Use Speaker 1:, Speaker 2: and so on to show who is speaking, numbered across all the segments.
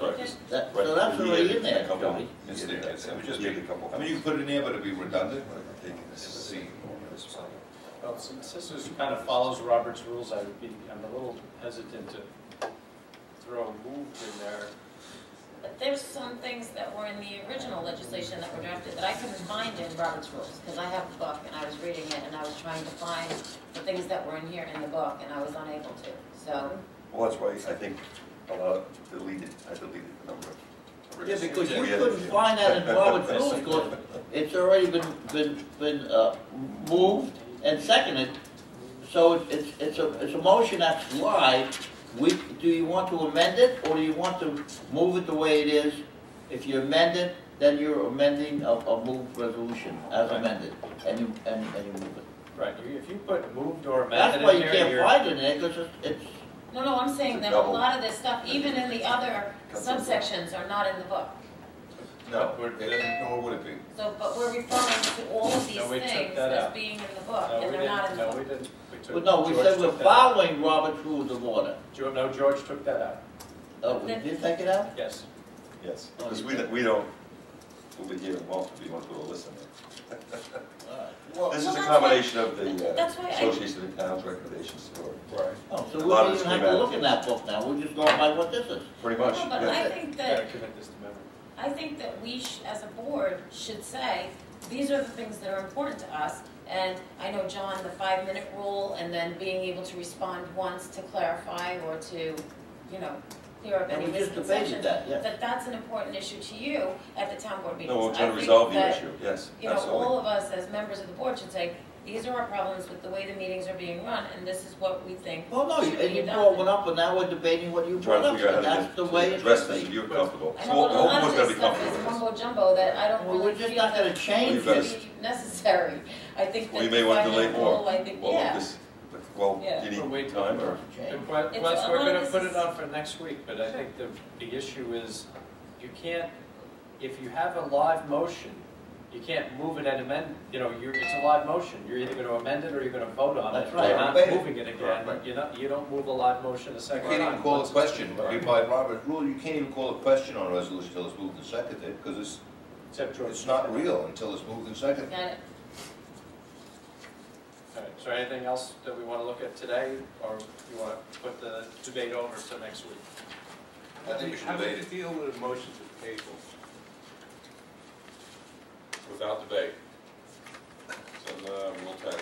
Speaker 1: Right.
Speaker 2: That,
Speaker 1: Right.
Speaker 2: so that's
Speaker 1: You
Speaker 2: already
Speaker 1: get
Speaker 2: in there.
Speaker 1: A couple,
Speaker 3: Yeah.
Speaker 1: it's there, it's, I would just make a couple, I mean, you can put it in there, but it'd be redundant, but I think it's the same.
Speaker 4: Well, since this is kind of follows Robert's rules, I would be, I'm a little hesitant to throw moved in there.
Speaker 5: But there's some things that were in the original legislation that were drafted that I couldn't find in Robert's rules, because I have the book and I was reading it and I was trying to find the things that were in here in the book and I was unable to, so.
Speaker 1: Well, that's why I think a lot of deleted, I deleted the number of.
Speaker 2: Yeah,
Speaker 1: original
Speaker 2: because you
Speaker 1: we had.
Speaker 2: couldn't find that in Robert's rules, because it's already been, been, been, uh, moved and seconded. So it- it's, it's a, it's a motion that's live. We, do you want to amend it, or do you want to move it the way it is? If you amend it, then you're amending a, a moved resolution as amended, and you, and, and you move it.
Speaker 4: Right, you- if you put moved or amended
Speaker 2: That's why
Speaker 4: in
Speaker 2: you
Speaker 4: there,
Speaker 2: can't
Speaker 4: you're.
Speaker 2: find it in there, because it's, it's,
Speaker 5: No, no, I'm saying that a lot of this stuff, even in the other subsections, are not in the book.
Speaker 1: No, it- nor would it be.
Speaker 5: So, but we're referring to all of these
Speaker 4: No, we took
Speaker 5: things
Speaker 4: that
Speaker 5: as
Speaker 4: out.
Speaker 5: being in the book,
Speaker 4: No,
Speaker 5: and
Speaker 4: we
Speaker 5: they're not in
Speaker 4: didn't,
Speaker 5: the book.
Speaker 4: no, we didn't. We took-
Speaker 2: well, no, we
Speaker 4: George
Speaker 2: said we're
Speaker 4: took that out.
Speaker 2: following Robert's rules of order.
Speaker 4: George, no, George took that out,
Speaker 2: Oh, we did take it out?
Speaker 4: yes.
Speaker 1: Yes. Because we, don't- we don't, we'll be here in Walton, we want to listen.
Speaker 2: All right.
Speaker 5: Well,
Speaker 1: This is
Speaker 5: well,
Speaker 1: a
Speaker 5: that's
Speaker 1: combination of
Speaker 5: why-
Speaker 1: the uh,
Speaker 5: that's why I-
Speaker 1: Association of Towns recommendations, or
Speaker 4: Right.
Speaker 2: Oh, so
Speaker 1: A
Speaker 2: we
Speaker 1: lot of
Speaker 2: don't
Speaker 1: this
Speaker 2: even
Speaker 1: came
Speaker 2: have to
Speaker 1: out.
Speaker 2: look in that book now, we're just going by what this is.
Speaker 1: pretty
Speaker 5: why-
Speaker 1: much.
Speaker 5: No, but
Speaker 1: yeah.
Speaker 5: I think that
Speaker 4: Gotta commit this to memory.
Speaker 5: I think that we, sh- as a board, should say, these are the things that are important to us. And I know, John, the five-minute rule, and then being able to respond once to clarify or to, you know, clear up any
Speaker 2: And we just
Speaker 5: misconceptions.
Speaker 2: debated that, yeah.
Speaker 5: That that's an important issue to you at the town board meetings.
Speaker 1: No, we're
Speaker 5: I
Speaker 1: trying to
Speaker 5: think
Speaker 1: resolve the
Speaker 5: that-
Speaker 1: issue, yes,
Speaker 5: you know, all
Speaker 1: absolutely.
Speaker 5: of us as members of the board should say, these are our problems with the way the meetings are being run, and this is what we think
Speaker 2: Well, no,
Speaker 5: should
Speaker 2: you- and
Speaker 5: be
Speaker 2: you brought one
Speaker 5: done.
Speaker 2: up, and now we're debating what you
Speaker 1: Trying
Speaker 2: brought
Speaker 1: to
Speaker 2: up,
Speaker 1: figure out
Speaker 2: and
Speaker 1: how
Speaker 2: that's
Speaker 1: to
Speaker 2: the
Speaker 1: do-
Speaker 2: way
Speaker 1: to
Speaker 2: it
Speaker 1: address
Speaker 2: should
Speaker 1: this, if
Speaker 2: be.
Speaker 1: you're comfortable.
Speaker 5: I
Speaker 1: So,
Speaker 5: know,
Speaker 1: all
Speaker 5: but a lot
Speaker 1: of
Speaker 5: of
Speaker 1: us gotta
Speaker 5: this
Speaker 1: be
Speaker 5: stuff
Speaker 1: comfortable
Speaker 5: is
Speaker 1: with this.
Speaker 5: mumbo jumbo that I don't
Speaker 2: Well,
Speaker 5: really
Speaker 2: we're just
Speaker 5: feel
Speaker 2: not gonna
Speaker 5: that
Speaker 2: change
Speaker 1: We've got
Speaker 2: it.
Speaker 1: to-
Speaker 5: should be necessary. I think that.
Speaker 1: We may want to delay
Speaker 5: five-minute rule,
Speaker 1: more.
Speaker 5: I think,
Speaker 1: Well,
Speaker 5: yeah.
Speaker 1: this- Well,
Speaker 5: Yeah.
Speaker 1: you
Speaker 4: Or
Speaker 1: need
Speaker 4: wait
Speaker 1: time, or?
Speaker 2: Okay.
Speaker 5: It's
Speaker 4: Plus,
Speaker 5: a
Speaker 4: we're
Speaker 5: lot of
Speaker 4: gonna
Speaker 5: this
Speaker 4: put
Speaker 5: is-
Speaker 4: it on for next week, but I think the, the issue is, you can't, if you have a live motion, you can't move it and amend, you know, you're, it's a live motion, you're either gonna amend it or you're gonna vote on it.
Speaker 2: That's right.
Speaker 4: You're not
Speaker 6: Right.
Speaker 4: moving it again,
Speaker 1: Right.
Speaker 4: you're not, you don't move a live motion a
Speaker 6: You
Speaker 4: second time.
Speaker 6: can't even call a
Speaker 4: once it's-
Speaker 6: question, by Robert rule, you can't even call a question on a resolution until it's moved and seconded, because it's,
Speaker 4: Except George.
Speaker 6: it's not real until it's moved and seconded.
Speaker 5: Got it.
Speaker 4: All right, so anything else that we wanna look at today, or you wanna put the debate over to next week?
Speaker 6: I think we should
Speaker 7: How do
Speaker 6: debate
Speaker 7: you
Speaker 6: it.
Speaker 7: deal with motions at the table? Without debate. So, uh, rule ten.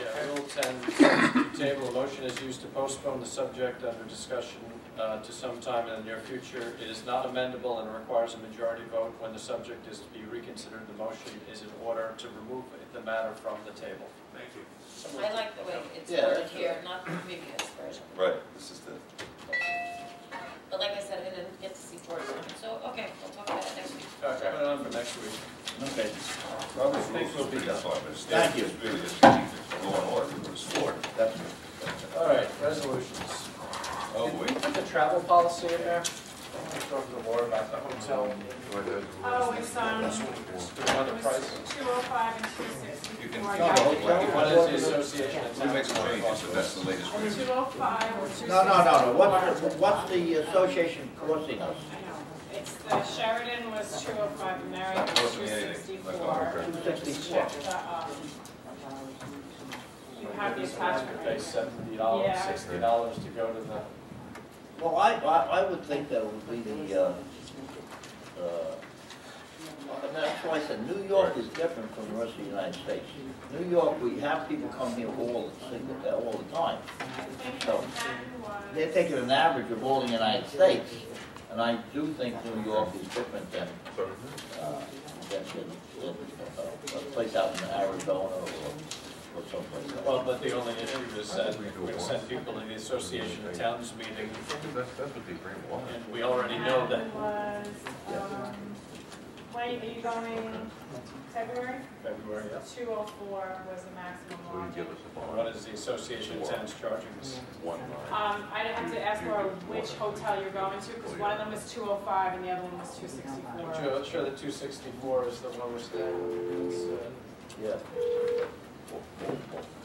Speaker 4: Yeah, Rule 10, table, a motion is used to postpone the subject under discussion uh, to some time in the near future. It is not amendable and requires a majority vote when the subject is to be reconsidered. The motion is in order to remove the matter from the table.
Speaker 7: Thank you.
Speaker 5: I like the way it's
Speaker 2: Yeah,
Speaker 5: worded
Speaker 2: that's
Speaker 5: here, not the previous version.
Speaker 1: Right, this is the,
Speaker 5: But like I said, I didn't get to see George, so, okay, we'll talk about it next week.
Speaker 4: All right, put it on for next week.
Speaker 2: Okay.
Speaker 6: Robert's
Speaker 4: Thanks,
Speaker 6: rules is pretty
Speaker 4: Lupe.
Speaker 6: fun, but it's-
Speaker 2: Thank you.
Speaker 6: It's really just, go on order, we would've sworn.
Speaker 2: That's,
Speaker 4: All right, resolutions.
Speaker 6: Oh,
Speaker 4: Did
Speaker 6: wait.
Speaker 4: we put the travel policy in there? I talked to Laura about the hotel,
Speaker 8: Oh, it's, um, it was
Speaker 4: the other price.
Speaker 8: two oh five and two
Speaker 6: You
Speaker 8: sixty-four.
Speaker 6: can-
Speaker 8: I
Speaker 6: no,
Speaker 8: got
Speaker 6: no,
Speaker 8: it.
Speaker 6: like-
Speaker 4: What is the association of
Speaker 6: We make
Speaker 4: towns?
Speaker 6: some changes, but that's the latest.
Speaker 8: Or
Speaker 6: version.
Speaker 8: two oh five or two sixty-four.
Speaker 2: no, no, no, no, what's, what's the association costing us?
Speaker 8: I know, it's, the Sheridan was two oh five, and Marriott was
Speaker 6: Wasn't
Speaker 8: two
Speaker 6: anything.
Speaker 8: sixty-four. um,
Speaker 2: Two sixty-four.
Speaker 8: You have the
Speaker 4: These ones
Speaker 8: attachment
Speaker 4: that
Speaker 8: right
Speaker 4: Pay
Speaker 8: here.
Speaker 4: seventy dollars,
Speaker 8: Yeah.
Speaker 4: sixty dollars to go to the
Speaker 2: Well, I, I, I would think that would be the, uh, uh, and that's why I said, New York is different from the rest of the United States. New York, we have people come here all, the single- all the time. So, They're taking an average of all the United States, and I do think New York is different than, uh, than, than, uh, a place out in Arizona or, or someplace else.
Speaker 4: Well, but the only issue is that we've sent people to the Association of Towns meeting,
Speaker 3: That's, that's what the agreement was.
Speaker 4: and we already know that
Speaker 8: Was, um, Wayne, are you going February?
Speaker 4: February, yes.
Speaker 8: Two oh four was the maximum
Speaker 3: So you
Speaker 8: lodging.
Speaker 3: give us a
Speaker 4: What
Speaker 3: bond,
Speaker 4: is the Association of Towns charging us?
Speaker 3: one line.
Speaker 8: Um, I have to ask her which hotel you're going to, because one of them is two oh five and the other one was two
Speaker 4: I'm
Speaker 8: sixty-four.
Speaker 4: sure- I'm sure the two sixty-four is the one we're staying with. It's, uh,
Speaker 2: Yeah.